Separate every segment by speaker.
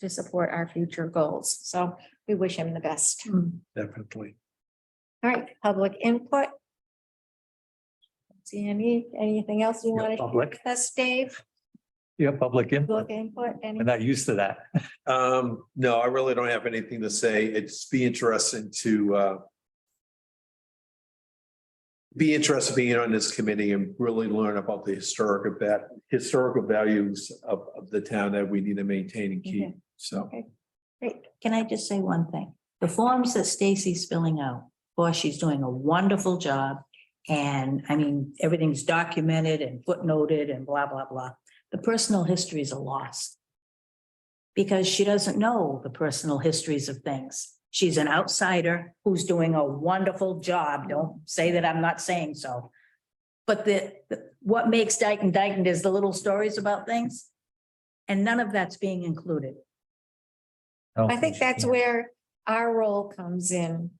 Speaker 1: to support our future goals. So we wish him the best.
Speaker 2: Hmm.
Speaker 3: Definitely.
Speaker 1: All right, public input. See any, anything else you
Speaker 3: Yeah,
Speaker 1: want to
Speaker 3: Public,
Speaker 1: us, Dave?
Speaker 3: yeah, public input.
Speaker 1: Public input, any?
Speaker 3: I'm not used to that.
Speaker 4: Um, no, I really don't have anything to say. It'd just be interesting to uh. Be interested being on this committee and really learn about the historic that historical values of of the town that we need to maintain and keep. So,
Speaker 2: Great. Can I just say one thing? The forms that Stacy's filling out, boy, she's doing a wonderful job. And I mean, everything's documented and footnoted and blah, blah, blah. The personal histories are lost. Because she doesn't know the personal histories of things. She's an outsider who's doing a wonderful job. Don't say that I'm not saying so. But the, the- what makes Dyken Dyken is the little stories about things. And none of that's being included.
Speaker 1: I think that's where our role comes in.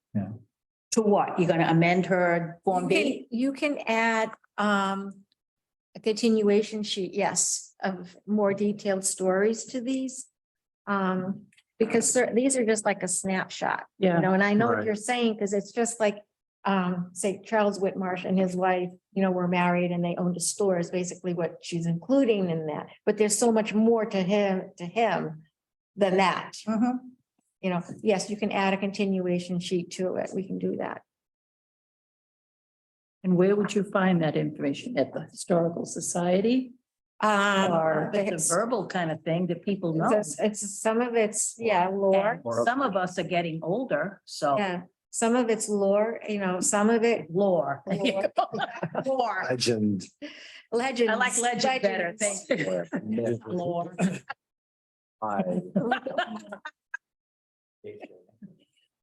Speaker 2: To what? You're gonna amend her Form
Speaker 1: You
Speaker 2: B?
Speaker 1: can- You can add um a continuation sheet, yes, of more detailed stories to these. Um, because cer- these are just like a snapshot, you know, and I know what
Speaker 4: Right.
Speaker 1: you're saying, because it's just like um, say Charles Whitmarsh and his wife, you know, were married and they owned a store is basically what she's including in that. But there's so much more to him, to him than that,
Speaker 2: Mhm.
Speaker 1: you know. Yes, you can add a continuation sheet to it. We can do that.
Speaker 5: And where would you find that information? At the Historical Society?
Speaker 1: Um,
Speaker 2: Or
Speaker 1: the
Speaker 2: it's a
Speaker 1: his-
Speaker 2: verbal kind of thing that people know.
Speaker 1: It's, it's, some of it's, yeah, lore,
Speaker 2: And Some of us are getting older, so
Speaker 1: yeah, some of it's lore, you know, some of it
Speaker 2: lore.
Speaker 1: Lore. lore,
Speaker 3: Legend.
Speaker 1: legends.
Speaker 2: I like legend better,
Speaker 1: legends.
Speaker 2: thank you. Lore.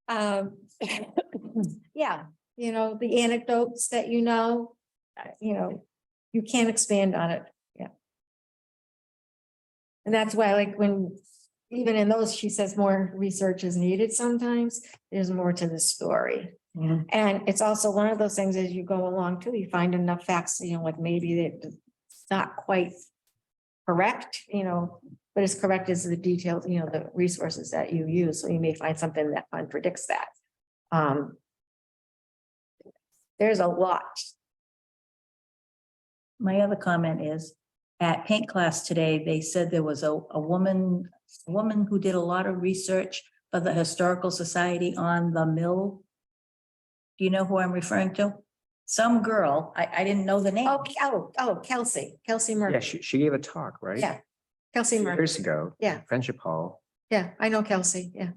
Speaker 1: Um, yeah, you know, the anecdotes that you know, uh, you know, you can't expand on it, yeah. And that's why, like, when, even in those, she says more research is needed sometimes, there's more to the story.
Speaker 2: Mhm.
Speaker 1: And it's also one of those things as you go along too, you find enough facts, you know, like maybe that it's not quite correct, you know, but as correct as the details, you know, the resources that you use. So you may find something that contradicts that. Um, there's a lot.
Speaker 2: My other comment is, at paint class today, they said there was a, a woman, a woman who did a lot of research for the Historical Society on the mill. Do you know who I'm referring to? Some girl, I, I didn't know the name.
Speaker 1: Oh, oh, oh, Kelsey, Kelsey
Speaker 6: Yeah,
Speaker 1: Murphy,
Speaker 6: she, she gave a talk, right?
Speaker 1: Yeah, Kelsey Murphy.
Speaker 6: Years ago.
Speaker 1: Yeah.
Speaker 6: Friendship Hall.
Speaker 1: Yeah, I know Kelsey, yeah.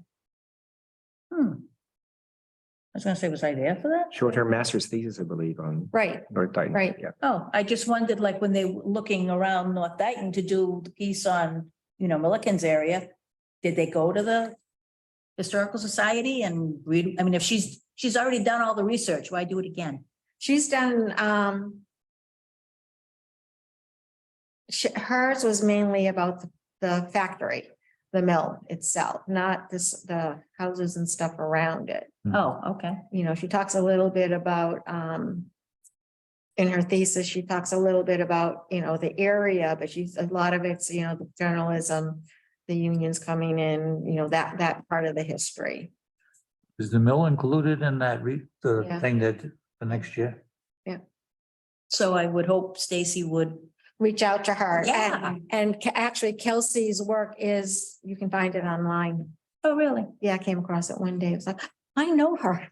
Speaker 2: Hmm. I was gonna say, was I there for that?
Speaker 6: She wrote her master's thesis, I believe, on
Speaker 1: Right,
Speaker 6: North Dayton.
Speaker 1: Right.
Speaker 6: Yeah.
Speaker 2: Oh, I just wondered, like, when they were looking around North Dayton to do the piece on, you know, Milliken's area, did they go to the Historical Society and read, I mean, if she's, she's already done all the research, why do it again?
Speaker 1: she's done, um, sh- hers was mainly about the- the factory, the mill itself, not this, the houses and stuff around it.
Speaker 2: Oh, okay.
Speaker 1: you know, she talks a little bit about, um, in her thesis, she talks a little bit about, you know, the area, but she's, a lot of it's, you know, the journalism, the unions coming in, you know, that, that part of the history.
Speaker 7: Is the mill included in that re, the
Speaker 1: Yeah.
Speaker 7: thing that for next year?
Speaker 2: So I would hope Stacy would,
Speaker 1: Reach out to her. and-
Speaker 2: Yeah.
Speaker 1: And Ke- actually Kelsey's work is, you can find it online.
Speaker 2: oh, really?
Speaker 1: Yeah, I came across it one day. It was like, I know her.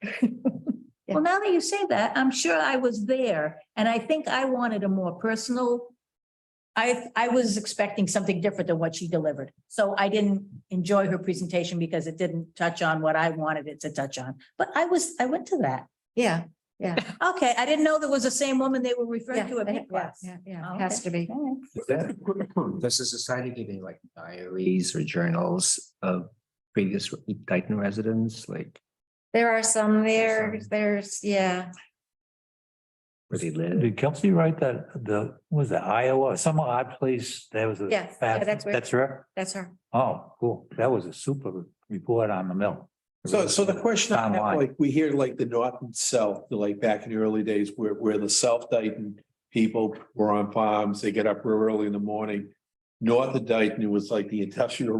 Speaker 1: Yeah.
Speaker 2: Well, now that you say that, I'm sure I was there, and I think I wanted a more personal. I, I was expecting something different than what she delivered, so I didn't enjoy her presentation because it didn't touch on what I wanted it to touch on. But I was, I went to that.
Speaker 1: Yeah,
Speaker 2: Okay, I didn't know there was the same woman they were
Speaker 1: yeah,
Speaker 2: referring to at
Speaker 1: yeah,
Speaker 2: Pink Class.
Speaker 1: yeah, yeah,
Speaker 2: Oh,
Speaker 1: it has
Speaker 2: okay.
Speaker 1: to be.
Speaker 2: All right.
Speaker 6: Does the society giving like diaries or journals of previous Dayton residents, like
Speaker 1: There are some there,
Speaker 6: Some.
Speaker 1: there's, yeah.
Speaker 6: where they live?
Speaker 7: Did Kelsey write that, the, what was that Iowa, some odd place, that was a.
Speaker 1: Yeah, yeah,
Speaker 7: fat-
Speaker 1: that's where-
Speaker 7: That's her?
Speaker 1: That's her.
Speaker 7: Oh, cool. That was a super report on the mill.
Speaker 4: so so the question, I have,
Speaker 7: Online.
Speaker 4: like, we hear like the north and south, like back in the early days where where the South Dayton. People were on farms, they get up real early in the morning. North of Dayton, it was like the industrial